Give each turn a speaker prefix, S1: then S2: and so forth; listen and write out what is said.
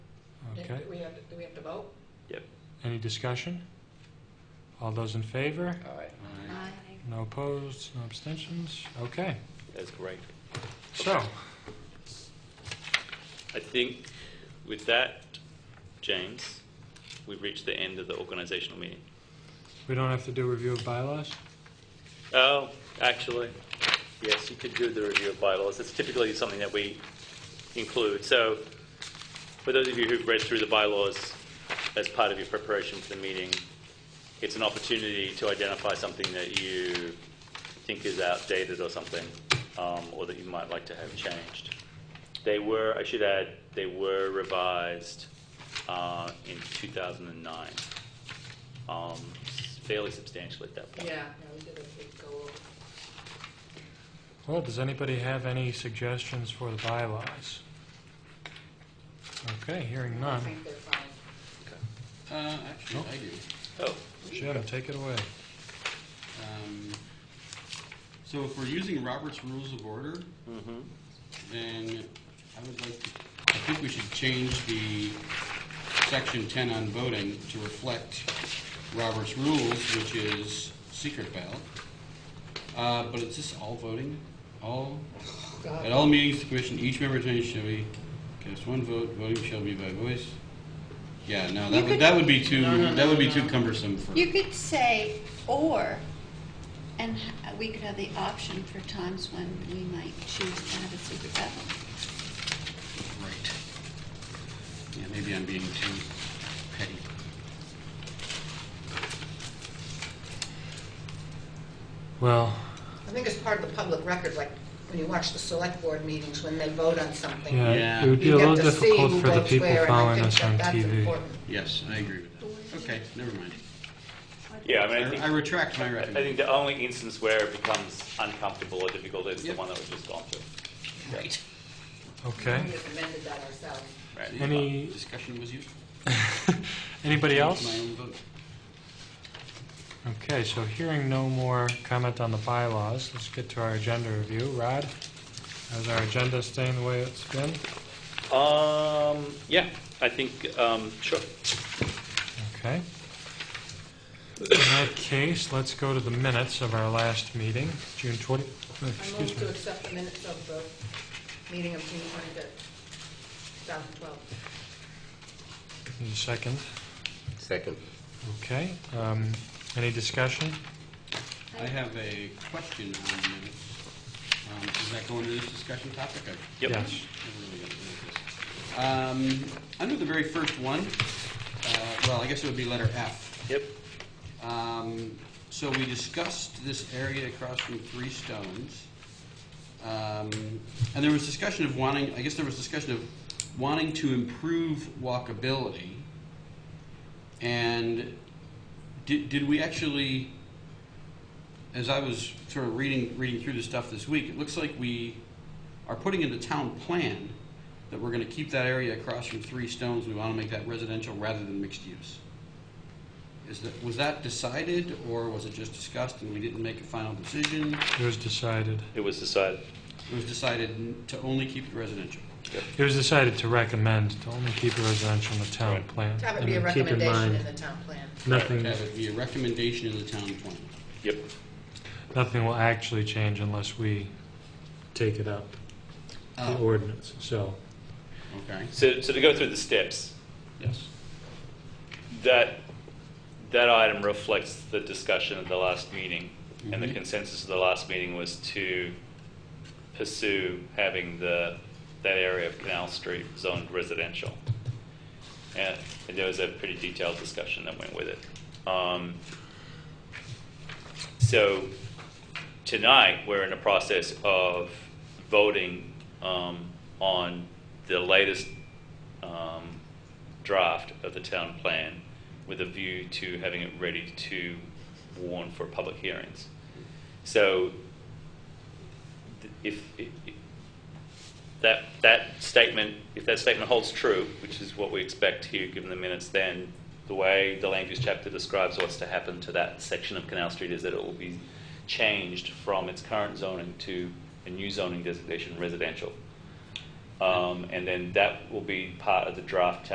S1: Okay.
S2: Do we have, do we have to vote?
S1: Any discussion? All those in favor?
S3: Aye.
S1: No opposed, no abstentions? Okay.
S4: That's correct.
S1: So,
S4: I think with that, James, we've reached the end of the organizational meeting.
S1: we don't have to do review of bylaws?
S4: Oh, actually, yes, you could do the review of bylaws. It's typically something that we include. So for those of you who've read through the bylaws as part of your preparation for the meeting, it's an opportunity to identify something that you think is outdated or something, um, or that you might like to have changed. They were, I should add, they were revised uh, in 2009, um, fairly substantially at that point.
S2: Yeah, yeah, we did a big go over.
S1: Well, does anybody have any suggestions for the bylaws? Okay, hearing
S2: I
S1: none.
S2: think they're fine.
S3: Uh, actually,
S1: Nope.
S3: I do.
S4: Oh,
S1: Jim, take it away.
S3: Um, So if we're using Robert's Rules of Order, then I would like, to I think we should change the section 10 on voting to reflect Robert's Rules, which is secret ballot. Uh, But it's just all voting, all, at all meetings, the commission, each member attending shall be, cast one vote, voting shall be by voice. Yeah, no, that would, that would be too, that would be too cumbersome for.
S5: You could say or, and h- we could have the option for times when we might choose to have a secret ballot.
S3: Right. Yeah, maybe I'm being too petty.
S1: Well,
S2: I think it's part of the public record, like when you watch the select board meetings, when they vote on something.
S1: yeah,
S3: Yeah.
S1: it would be
S2: You
S1: a
S2: get
S1: little
S2: to see who
S1: difficult for the
S2: votes
S1: people
S2: where, and I
S1: following
S2: think
S1: us
S2: that
S1: on
S2: that's
S1: TV.
S2: important.
S3: Yes, I agree with that. Okay, never mind.
S4: yeah, I mean, I
S3: I
S4: think.
S3: I retract my
S4: I think
S3: recommendation.
S4: the only instance where it becomes uncomfortable or difficult is the
S3: Yep.
S4: one that we've just gone through.
S3: Right.
S1: Okay.
S2: We just amended that ourselves.
S4: Right.
S1: Any,
S3: Discussion was useful.
S1: anybody
S3: My
S1: else?
S3: own vote.
S1: Okay, so hearing no more comment on the bylaws, let's get to our agenda review. Rod, how's our agenda staying the way it's been?
S4: Um, yeah, I think, um, sure.
S1: Okay. In that case, let's go to the minutes of our last meeting, June 20, uh,
S2: I
S1: excuse
S2: move to
S1: me.
S2: accept the minutes of the meeting of June 25th, 2012.
S1: Need a Second,
S6: Second.
S1: okay. Um, Any discussion?
S3: I have a question on the minutes. Um, Does that go into this discussion topic? I-
S4: Yep.
S1: Yes.
S3: I really don't know this. Um, Under the very first one, uh, well, I guess it would be letter F.
S4: Yep.
S3: Um, So we discussed this area across from Three Stones. Um, And there was discussion of wanting, I guess there was discussion of wanting to improve walkability. And did, did we actually, as I was sort of reading, reading through the stuff this week, it looks like we are putting into town plan that we're going to keep that area across from Three Stones, we want to make that residential rather than mixed use. Is that, was that decided, or was it just discussed and we didn't make a final decision?
S1: It was decided,
S4: It was decided.
S3: It was decided n- to only keep it residential.
S1: it was decided to recommend to only keep it residential in the town
S4: Right.
S1: plan.
S2: Have it
S1: I
S2: be a
S1: mean, keep in
S2: recommendation
S1: mind,
S2: in the town plan.
S1: Nothing,
S3: That would be a recommendation in the town plan.
S4: Yep.
S1: nothing will actually change unless we take it up, the
S3: Oh.
S1: ordinance, so.
S3: Okay,
S4: So, so to go through the steps,
S3: yes.
S4: that, that item reflects the discussion at the last meeting. And the
S3: Mhm.
S4: consensus of the last meeting was to pursue having the, that area of Canal Street zoned residential. And and there was a pretty detailed discussion that went with it. Um, So tonight, we're in the process of voting um, on the latest um, draft of the town plan with a view to having it ready to warn for public hearings. So th- if, if- if that, that statement, if that statement holds true, which is what we expect here, given the minutes, then the way the land use chapter describes what's to happen to that section of Canal Street is that it will be changed from its current zoning to a new zoning designation residential. Um, And then that will be part of the draft